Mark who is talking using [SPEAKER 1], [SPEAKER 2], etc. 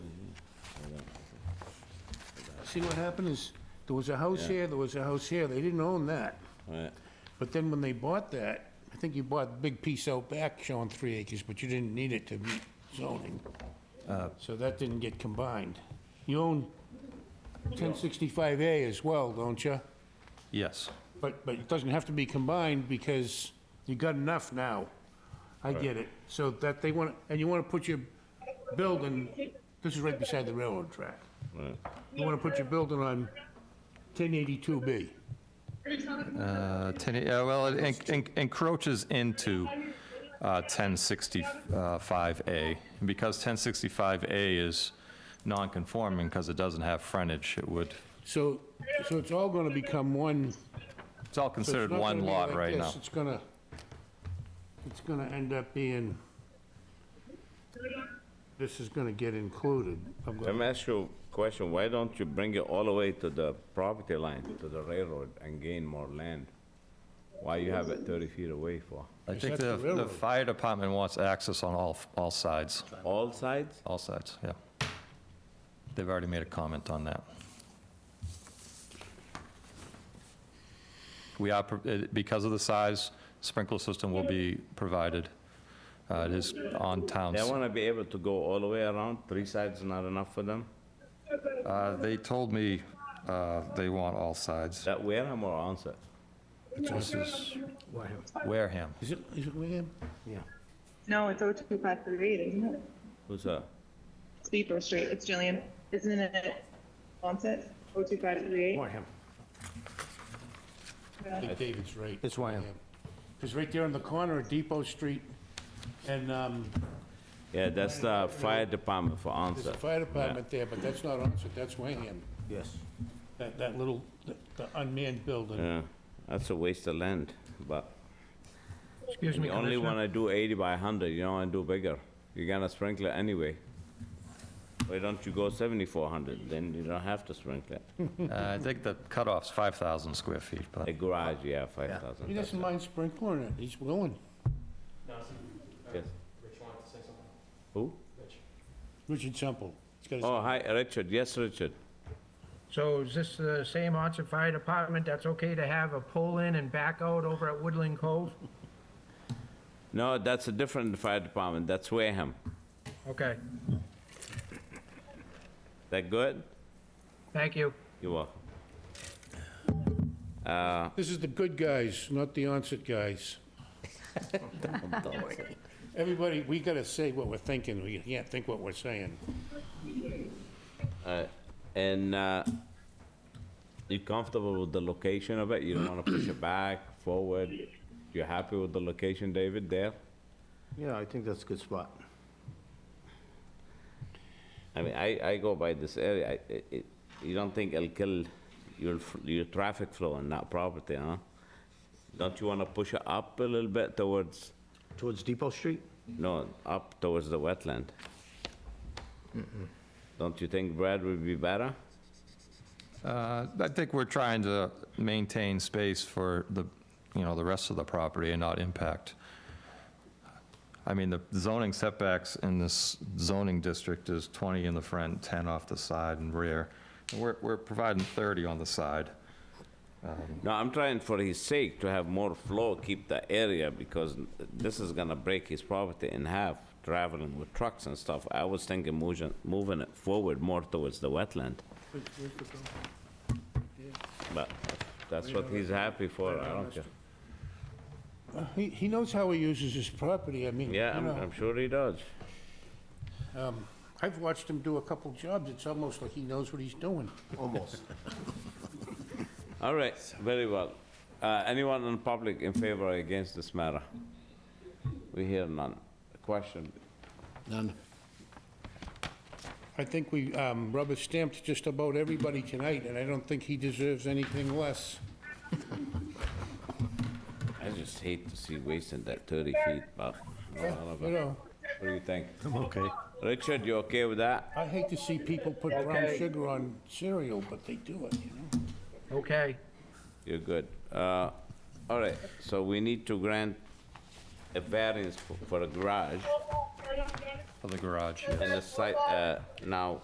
[SPEAKER 1] see what happened is, there was a house here, there was a house here, they didn't own that.
[SPEAKER 2] Right.
[SPEAKER 1] But then when they bought that, I think you bought a big piece out back showing three acres, but you didn't need it to meet zoning. So that didn't get combined. You own 1065A as well, don't you?
[SPEAKER 3] Yes.
[SPEAKER 1] But, but it doesn't have to be combined because you got enough now. I get it. So that they want, and you want to put your building, this is right beside the railroad track.
[SPEAKER 2] Right.
[SPEAKER 1] You want to put your building on 1082B.
[SPEAKER 3] Uh, 10, yeah, well, it en- en- encroaches into uh, 1065A. And Because 1065A is non-conforming, because it doesn't have frontage, it would,
[SPEAKER 1] So, so it's all going to become one
[SPEAKER 3] it's all
[SPEAKER 1] So it's
[SPEAKER 3] considered
[SPEAKER 1] not
[SPEAKER 3] one
[SPEAKER 1] gonna be
[SPEAKER 3] lot
[SPEAKER 1] like
[SPEAKER 3] right
[SPEAKER 1] this.
[SPEAKER 3] now.
[SPEAKER 1] It's gonna, it's gonna end up being, this is gonna get included. I'm
[SPEAKER 2] Let
[SPEAKER 1] gonna-
[SPEAKER 2] me ask you a question. Why don't you bring it all the way to the property line, to the railroad, and gain more land? Why you have it 30 feet away for?
[SPEAKER 3] I
[SPEAKER 1] Is
[SPEAKER 3] think
[SPEAKER 1] that the
[SPEAKER 3] the, the
[SPEAKER 1] railroad?
[SPEAKER 3] fire department wants access on all, f- all sides,
[SPEAKER 2] All sides?
[SPEAKER 3] all sides, yeah. They've already made a comment on that. We are, pro- it- because of the size, sprinkler system will be provided. Uh, It is on town.
[SPEAKER 2] They
[SPEAKER 3] s-
[SPEAKER 2] want to be able to go all the way around? Three sides not enough for them?
[SPEAKER 3] Uh, They told me uh, they want all sides.
[SPEAKER 2] That Wareham or Onset?
[SPEAKER 3] This is Wareham.
[SPEAKER 1] Is it, is it Wareham?
[SPEAKER 4] No, it's 02538, isn't it?
[SPEAKER 2] Who's that?
[SPEAKER 4] It's Beeper Street, it's Jillian. Isn't it Onset, 02538?
[SPEAKER 5] Wareham.
[SPEAKER 1] I think David's right.
[SPEAKER 5] It's Wyham.
[SPEAKER 1] Because right there on the corner of Depot Street and, um,
[SPEAKER 2] Yeah, that's the fire department for
[SPEAKER 1] there's a
[SPEAKER 2] Onset.
[SPEAKER 1] fire department there, but that's not Onset, that's Wareham.
[SPEAKER 5] Yes.
[SPEAKER 1] That, that little, the the unmanned building.
[SPEAKER 2] Yeah, that's a waste of land, but
[SPEAKER 6] Excuse me,
[SPEAKER 2] you only
[SPEAKER 6] Commissioner.
[SPEAKER 2] want to do 80 by 100, you don't want to do bigger. You're gonna sprinkle it anyway. Why don't you go 7,400, then you don't have to sprinkle it.
[SPEAKER 3] Uh, I think the cutoff's 5,000 square feet, but
[SPEAKER 2] A garage, yeah,
[SPEAKER 1] He
[SPEAKER 2] 5,000. that's
[SPEAKER 1] doesn't
[SPEAKER 2] it.
[SPEAKER 1] mind sprinkling it, he's willing.
[SPEAKER 2] Yes. Who?
[SPEAKER 1] Richard Temple. He's got his-
[SPEAKER 2] Oh, hi, Richard, yes, Richard.
[SPEAKER 6] So is this the same Onset Fire Department that's okay to have a pull-in and back-out over at Woodland Cove?
[SPEAKER 2] No, that's a different fire department, that's Wareham.
[SPEAKER 6] Okay,
[SPEAKER 2] That good?
[SPEAKER 6] thank you.
[SPEAKER 2] You're welcome.
[SPEAKER 1] This is the good guys, not the onset guys. Everybody, we gotta say what we're thinking, we can't think what we're saying.
[SPEAKER 2] And uh, you comfortable with the location of it? You don't want to push it back, forward? You're happy with the location, David, there?
[SPEAKER 5] Yeah, I think that's a good spot.
[SPEAKER 2] I mean, I, I go by this area, I- it- it- you don't think it'll kill your, f- your traffic flow in that property, huh? Don't you want to push it up a little bit towards,
[SPEAKER 5] Towards Depot Street?
[SPEAKER 2] no, up towards the wetland? Don't you think Brad would be better?
[SPEAKER 3] uh, I think we're trying to maintain space for the, you know, the rest of the property and not impact. I mean, the zoning setbacks in this zoning district is 20 in the front, 10 off the side and rear. And We're we're providing 30 on the side.
[SPEAKER 2] No, I'm trying for his sake to have more flow, keep the area, because this is gonna break his property in half, traveling with trucks and stuff. I was thinking moving, moving it forward more towards the wetland. But that's what he's happy for, I don't care.
[SPEAKER 1] He, he knows how he uses his property, I mean, you
[SPEAKER 2] Yeah, I'm,
[SPEAKER 1] know,
[SPEAKER 2] I'm sure he does.
[SPEAKER 1] I've watched him do a couple jobs, it's almost like he knows what he's doing.
[SPEAKER 5] Almost.
[SPEAKER 2] All right, very well. Uh, anyone in public in favor or against this matter? We hear none. Question?
[SPEAKER 1] None. I think we um, rubber stamped just about everybody tonight, and I don't think he deserves anything less.
[SPEAKER 2] I just hate to see wasting that thirty feet, but.
[SPEAKER 1] You know,
[SPEAKER 2] What do you think?
[SPEAKER 5] I'm okay.
[SPEAKER 2] Richard, you okay with that?
[SPEAKER 1] I hate to see people put brown sugar on cereal, but they do it, you know?
[SPEAKER 6] Okay.
[SPEAKER 2] You're good. Uh, All right, so we need to grant a variance for- for a garage
[SPEAKER 3] For the garage,
[SPEAKER 2] and a site, uh, now,